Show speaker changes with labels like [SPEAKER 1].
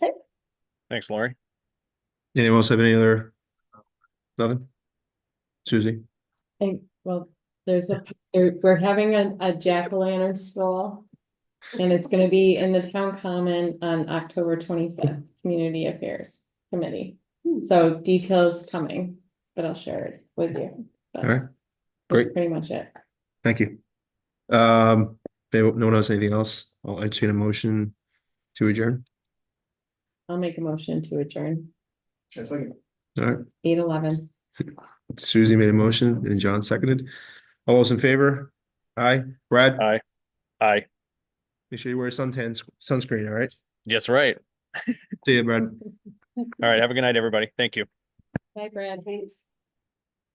[SPEAKER 1] Thanks, Lori.
[SPEAKER 2] Anyone else have any other? Nothing? Susie?
[SPEAKER 3] Thank, well, there's a, there- we're having a, a jack-o'-lantern stroll. And it's gonna be in the town common on October twenty-fifth, Community Affairs Committee. So details coming, but I'll share it with you. But
[SPEAKER 2] All right,
[SPEAKER 3] That's pretty much it.
[SPEAKER 2] thank you. Um, if no one has anything else? I'll entertain a motion to adjourn.
[SPEAKER 3] I'll make a motion to adjourn,
[SPEAKER 2] All right,
[SPEAKER 3] eight eleven.
[SPEAKER 2] Susie made a motion and John seconded. All those in favor? Aye. Brad,
[SPEAKER 1] Aye.
[SPEAKER 2] make sure you wear suntan, sunscreen, all right?
[SPEAKER 1] Yes, right.
[SPEAKER 2] See you, Brad.
[SPEAKER 1] All right. Have a good night, everybody. Thank you.
[SPEAKER 3] Hi, Brad, thanks.